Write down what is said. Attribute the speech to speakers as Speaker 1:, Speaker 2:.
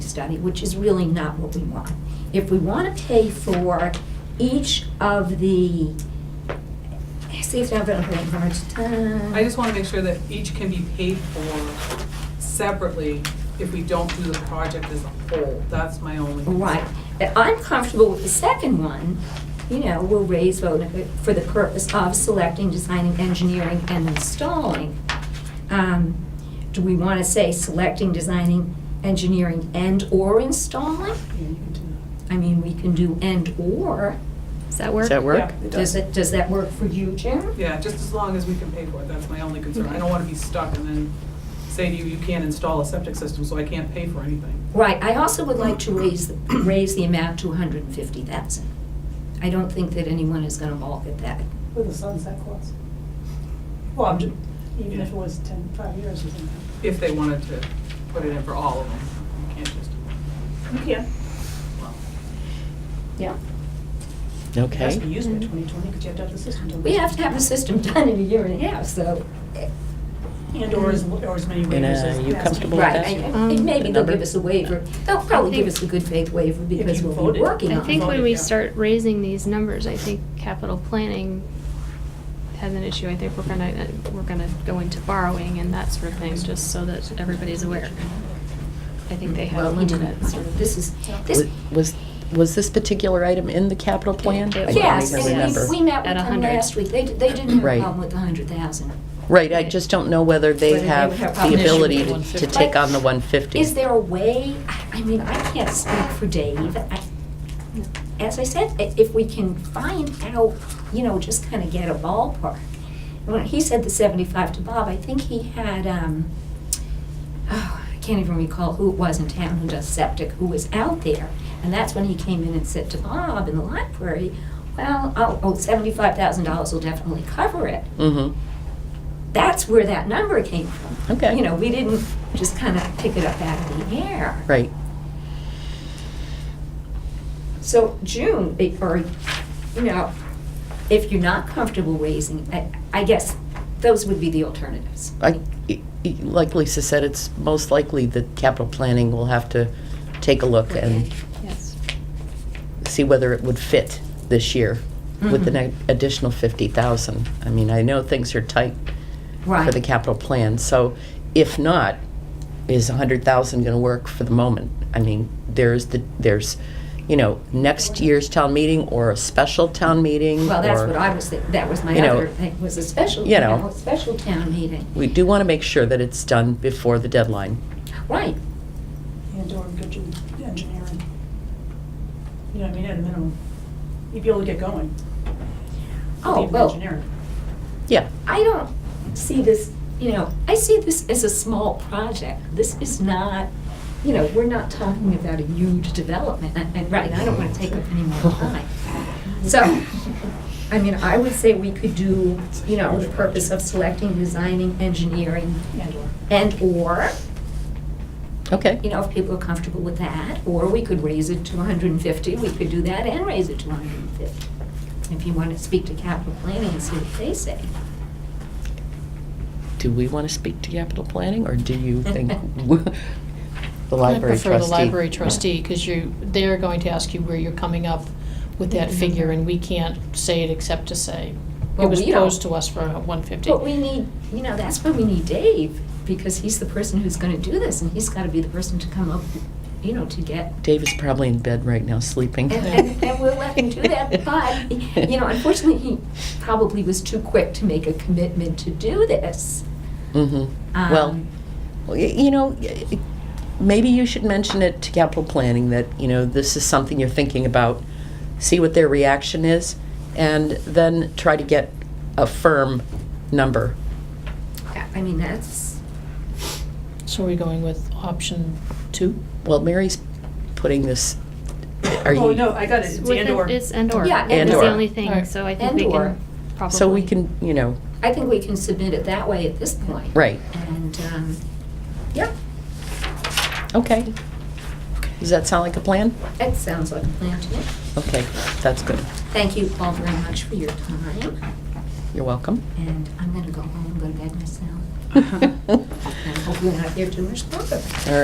Speaker 1: study, which is really not what we want. If we want to pay for each of the, see if now I'm going to put
Speaker 2: I just want to make sure that each can be paid for separately if we don't do the project as a whole. That's my only. concern.
Speaker 1: Right. But I'm comfortable with the second one, you know, we'll raise, vote for the purpose of selecting, designing, engineering, and installing. Um, Do we want to say selecting, designing, engineering, and/or installing?
Speaker 2: Yeah, you can do
Speaker 1: I mean, we can do and/or. Does that
Speaker 3: Does that work?
Speaker 2: Yeah.
Speaker 1: Does it, does that work for you,
Speaker 2: that.
Speaker 1: Jim?
Speaker 2: Yeah, just as long as we can pay for it, that's my only concern. I don't want to be stuck and then say to you, you can't install a septic system, so I can't pay for anything.
Speaker 1: Right, I also would like to raise, the- raise the amount to 150,000. I don't think that anyone is going to balk at that.
Speaker 4: With a sunset clause. Well, I'm ju- even if it was ten, five years or something.
Speaker 2: If they wanted to put it in for all of them, you can't just,
Speaker 4: You can.
Speaker 2: well.
Speaker 1: Yeah.
Speaker 4: It has to be
Speaker 3: Okay.
Speaker 4: used by twenty twenty, because you have to have the system done.
Speaker 1: We have to have the system done in a year and a half, so. eh,
Speaker 4: And or as, or as many
Speaker 3: And, uh,
Speaker 4: waivers as.
Speaker 3: you
Speaker 4: as-
Speaker 3: comfortable with
Speaker 1: Right,
Speaker 3: that?
Speaker 1: I- I-
Speaker 5: Um,
Speaker 1: and maybe they'll
Speaker 3: the number?
Speaker 1: give us a waiver. They'll probably give
Speaker 5: think-
Speaker 1: us a good faith waiver because
Speaker 4: you
Speaker 1: we'll be
Speaker 4: voted.
Speaker 1: working
Speaker 4: Yeah.
Speaker 5: I
Speaker 1: on
Speaker 5: think
Speaker 1: it.
Speaker 5: when we
Speaker 4: Yeah.
Speaker 5: start raising these numbers, I think capital planning has an issue. I think we're gonna, uh, we're gonna go into borrowing and that sort of thing, just so that everybody's aware. I think they have
Speaker 1: Well,
Speaker 5: a
Speaker 1: we
Speaker 5: limit
Speaker 1: didn't.
Speaker 5: at sort of.
Speaker 1: This is, this,
Speaker 3: Was, was this particular item in the capital plan? I don't
Speaker 1: yes,
Speaker 3: even
Speaker 5: and
Speaker 3: remember.
Speaker 1: and we, we met with
Speaker 5: At a
Speaker 1: them
Speaker 5: hundred.
Speaker 1: last week. They, d- they didn't have a
Speaker 3: Right.
Speaker 1: problem with the hundred thousand.
Speaker 3: Right, I just don't know whether they
Speaker 1: Whether they
Speaker 3: have
Speaker 1: would have
Speaker 3: the
Speaker 1: option.
Speaker 3: ability
Speaker 1: Issue
Speaker 3: to
Speaker 1: with
Speaker 3: to take
Speaker 1: 150.
Speaker 3: on the 150.
Speaker 1: Is there a way, I I mean, I can't speak for Dave. I- As I said, i- if we can find out, you know, just kind of get a ballpark. When he said the seventy-five to Bob, I think he had, um, oh, I can't even recall who it was in town who does septic, who was out there. And that's when he came in and said to Bob in the library, well, oh, oh, seventy-five thousand dollars will definitely cover it
Speaker 3: Mhm.
Speaker 1: that's where that number came from.
Speaker 3: Okay.
Speaker 1: You know, we didn't just kind of pick it up out of the air.
Speaker 3: Right.
Speaker 1: So June, it- or, you know, if you're not comfortable raising, I, I guess those would be the alternatives.
Speaker 3: I- i- i- Like Lisa said, it's most likely that capital planning will have to take a look and
Speaker 5: Yes.
Speaker 3: see whether it would fit this year with an
Speaker 1: Mhm.
Speaker 3: ad- additional 50,000. I mean, I know things are tight for
Speaker 1: Right.
Speaker 3: the capital plan, so if not, is 100,000 going to work for the moment? I mean, there's the, there's, you know, next year's town meeting or a special town meeting?
Speaker 1: Well, that's
Speaker 3: or-
Speaker 1: what I was, thi- that was my
Speaker 3: you know,
Speaker 1: other thing, was a special,
Speaker 3: you
Speaker 1: you
Speaker 3: know.
Speaker 1: know, a special town meeting.
Speaker 3: We do want to make sure that it's done before the deadline.
Speaker 1: Right,
Speaker 4: And or good ju- engineering. You know what I mean, at a minimum, you'd be able to get going.
Speaker 1: Oh,
Speaker 4: Even
Speaker 1: well.
Speaker 4: engineering.
Speaker 3: Yeah,
Speaker 1: I don't see this, you know, I see this as a small project. This is not, you know, we're not talking about a huge development, and, and right, I don't wanna take up any more time. So, I mean, I would say we could do, you know, the purpose of selecting, designing, engineering,
Speaker 4: And or.
Speaker 1: and/or, you
Speaker 3: okay.
Speaker 1: know, if people are comfortable with that, or we could raise it to hundred and fifty, we could do that and raise it to hundred and fifty. If you wanna speak to capital planning and see what they say.
Speaker 3: Do we want to speak to capital planning, or do you think the library trustee?
Speaker 6: I prefer the library trustee, because you, they're going to ask you where you're coming up with that figure, and we can't say it except to say, it
Speaker 1: Mm-hmm. Well,
Speaker 6: was
Speaker 1: we don't.
Speaker 6: posed to us for one fifty.
Speaker 1: But we need, you know, that's why we need Dave, because he's the person who's gonna do this, and he's gotta be the person to come up, you know, to get.
Speaker 3: Dave is probably in bed right now, sleeping.
Speaker 1: And, and, and we'll let him do that, but, you know, unfortunately, he probably was too quick to make a commitment to do this.
Speaker 3: Mhm. Well,
Speaker 1: Um,
Speaker 3: y- you know, y- y- maybe you should mention it to capital planning that, you know, this is something you're thinking about, see what their reaction is, and then try to get a firm number.
Speaker 1: I I mean, that's,
Speaker 6: So are we going with option two?
Speaker 3: Well, Mary's putting this, are
Speaker 4: Oh, no,
Speaker 3: you,
Speaker 4: I got it, it's
Speaker 5: With
Speaker 4: and
Speaker 5: it-
Speaker 4: or.
Speaker 5: It's and or.
Speaker 1: Yeah,
Speaker 3: and
Speaker 5: It's
Speaker 3: or.
Speaker 5: the only
Speaker 6: Alright.
Speaker 5: thing, so I think
Speaker 1: And
Speaker 5: we
Speaker 1: or.
Speaker 5: can probably.
Speaker 3: so we can, you know,
Speaker 1: I think we can submit it that way at this point.
Speaker 3: right,
Speaker 1: And, um, yeah,
Speaker 3: okay. Does that sound like a plan?
Speaker 1: that sounds like a plan to me.
Speaker 3: Okay, that's good.
Speaker 1: Thank you all very much for your time,
Speaker 3: You're welcome.
Speaker 1: and I'm gonna go home, go to bed myself,
Speaker 3: All
Speaker 1: and hopefully not hear too much more of it.
Speaker 3: right.